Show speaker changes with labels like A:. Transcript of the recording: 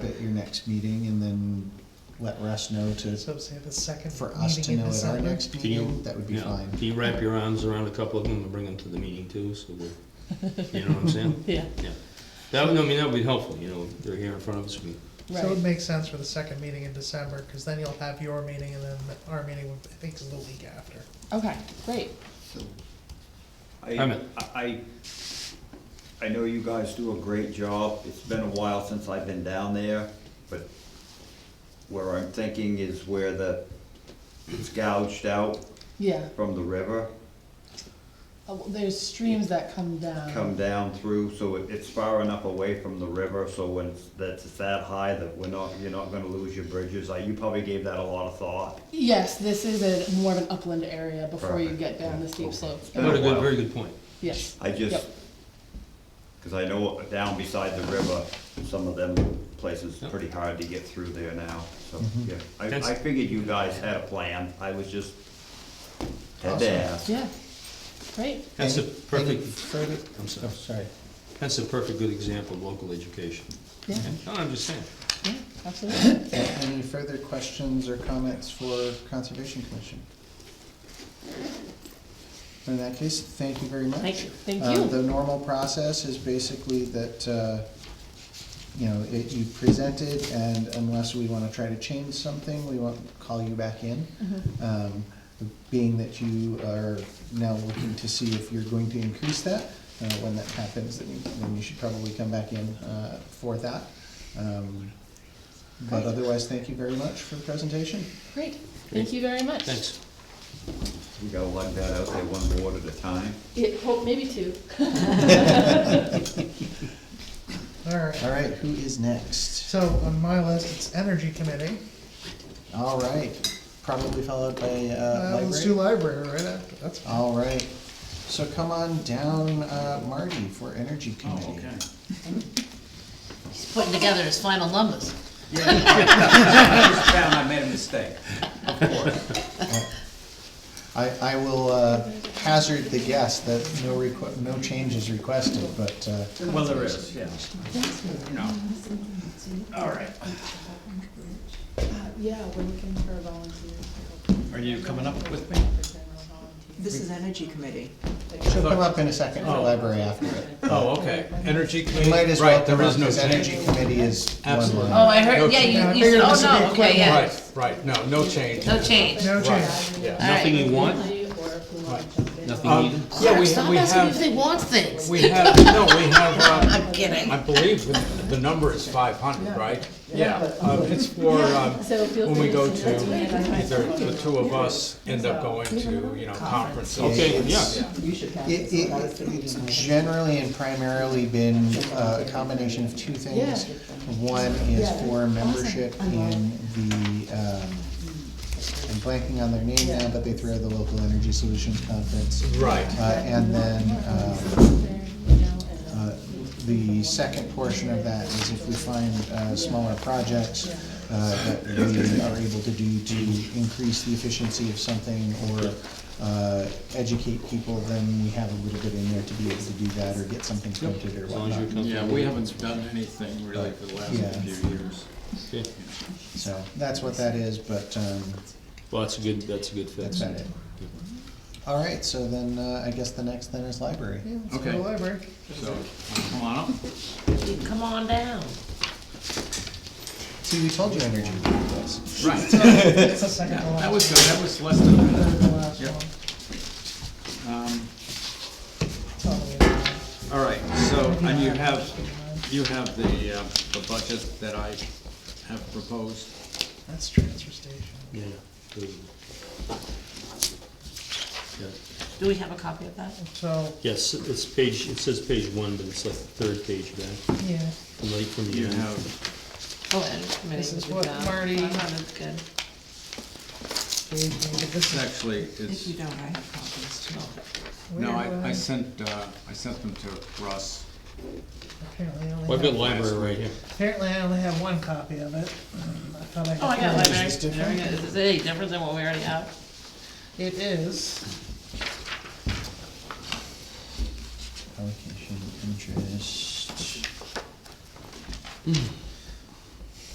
A: next meeting and then let Russ know to,
B: So say the second
A: for us to
B: meeting in
A: know at our
B: December.
A: next
C: Can you-
A: meeting, that would be
C: yeah,
A: fine.
C: Can you wrap your arms around a couple of them and bring them to the meeting too, so we, you know what I'm saying?
D: Yeah,
C: Yeah. That, would- I mean, that would be helpful, you know, they're here in front of us, we,
B: So it would
D: right,
B: make sense for the second meeting in December, cause then you'll have your meeting and then our meeting, would- I think is the week after.
D: okay, great.
C: I'm in.
E: I, I, I know you guys do a great job, it's been a while since I've been down there, but where I'm thinking is where the, it's gouged out
D: Yeah,
E: from the river,
D: Uh, well, there's streams that come down.
E: come down through, so it- it's far enough away from the river, so when it's, that's it's that high that we're not, you're not gonna lose your bridges, like, you probably gave that a lot of thought.
D: Yes, this is a more of an upland area before you get down the steep
E: Okay.
D: slopes.
E: Been a
C: what a good,
E: while.
C: very good point.
D: Yes,
E: I just,
D: Yep.
E: cause I know down beside the river, some of them places
C: Yep.
E: pretty hard to get through there now, so,
A: Mhm.
D: Mm-hmm.
E: yeah. I,
C: That's-
E: I figured you guys had a plan, I was just, had to ask.
D: yeah, great,
C: That's the
A: Any- any
C: perfect,
A: Further, oh,
C: I'm sorry,
A: sorry.
C: that's a perfect good example of local education.
D: yeah,
C: No, I'm just saying,
D: yeah, absolutely.
A: Any further questions or comments for Conservation Commission? In that case, thank you very much.
D: Thank you. Thank
A: Um,
D: you.
A: The normal process is basically that, uh, you know, it, you present it, and unless we wanna try to change something, we won't call you back in.
D: Mm-hmm.
A: Um, Being that you are now looking to see if you're going to increase that, uh, when that happens, then you, then you should probably come back in, uh, for that. Um, But otherwise, thank you very much for the presentation.
D: Great, thank you very much.
C: thanks.
E: We gotta lug that out there one board at a time.
D: It, hope, maybe two.
B: Alright,
A: All right, who is next?
B: so on my list, it's Energy Committee.
A: All right, probably followed by, uh,
B: Uh,
A: library. Uh,
B: let's do library right after, that's fine.
A: All right, so come on down, uh, Marty, for Energy
E: Oh,
A: Committee.
F: He's putting together his final numbers.
E: Yeah, I just found I made a mistake, of course.
A: I, I will uh, hazard the guess that no requ- no change is requested, but, uh,
E: Well, there is, yeah. You know, all right.
D: Yeah, we're looking for volunteers.
E: Are you coming up with me?
G: This is Energy Committee.
A: she'll come up in a second for library after it.
H: Oh, okay, energy
A: We
H: committee,
A: might as well
H: right,
A: come
H: there
A: up,
H: is no
A: because Energy
H: change.
A: Committee is one
H: Absolutely.
F: Oh,
A: line.
F: I heard, yeah,
B: No
F: you, you said,
B: change.
F: oh, no, okay, yeah,
H: Right, right, no, no change.
F: no change.
B: No
H: Right,
B: change.
H: yeah.
C: Nothing you want,
I: Uh,
C: nothing
H: Um,
C: needed?
H: Yeah, we,
F: Stop
H: we
F: asking if
H: have,
F: they want things.
H: we have, no, we have, uh,
F: I'm kidding.
H: I believe the, the number is five hundred, right? Yeah, um, it's for, um, when we go to, either the two of us end up going to, you know, conferences.
C: Okay, yeah.
A: It, it, it's generally and primarily been uh, a combination of two things. One is for membership in the, um, I'm blanking on their name now, but they throw the Local Energy Solutions Conference.
H: Right.
A: Uh, and then, um, uh, the second portion of that is if we find, uh, smaller projects, uh, that we are able to do to increase the efficiency of something or, uh, educate people, then we have a little bit in there to be able to do that or get something printed or
C: As long as you're
A: whatnot.
C: comfortable.
I: Yeah, we haven't done anything really for the
A: Yeah.
I: last few years.
C: Okay.
A: So, that's what that is, but, um,
C: Well, that's a good, that's a good
A: that's
C: fix.
A: about it. All right, so then, uh, I guess the next then is library.
B: Yeah, let's go to
I: Okay.
B: library.
I: So, come on up.
F: You Come on down.
A: See, we told you energy was.
I: Right,
B: It's the second to
I: that
B: last.
I: was good, that was less than a
B: Third
I: minute.
B: to last
I: Yep.
B: one.
I: Um,
B: It's all the way down.
I: All right, so, and you have, you have the, uh, the budget that I have proposed.
B: That's transfer station.
C: Yeah. good. Yeah.
F: Do we have a copy of that?
B: So,
C: Yes, it's page, it says page one, but it's like the third page back,
B: yeah,
C: from the, from the.
I: You
C: end.
I: have,
F: Oh, and committee.
B: This is
F: good
B: what
F: job.
B: Marty-
F: Oh, that's good.
B: Dave, maybe this
I: it's
B: is
I: actually,
G: If you
I: it's,
G: don't, I have copies too.
F: Oh,
B: weird.
I: no, I, I
B: uh,
I: sent, uh, I sent them to Russ.
B: Apparently I
C: Well, I've
B: only
C: got
B: have,
C: library right here.
B: apparently I only have one copy of it. Um, I thought I
F: Oh, I got
B: got.
F: library.
A: Is this
F: There we go. Is it any different than what we already have?
B: three. It is,
A: Allocation of interest.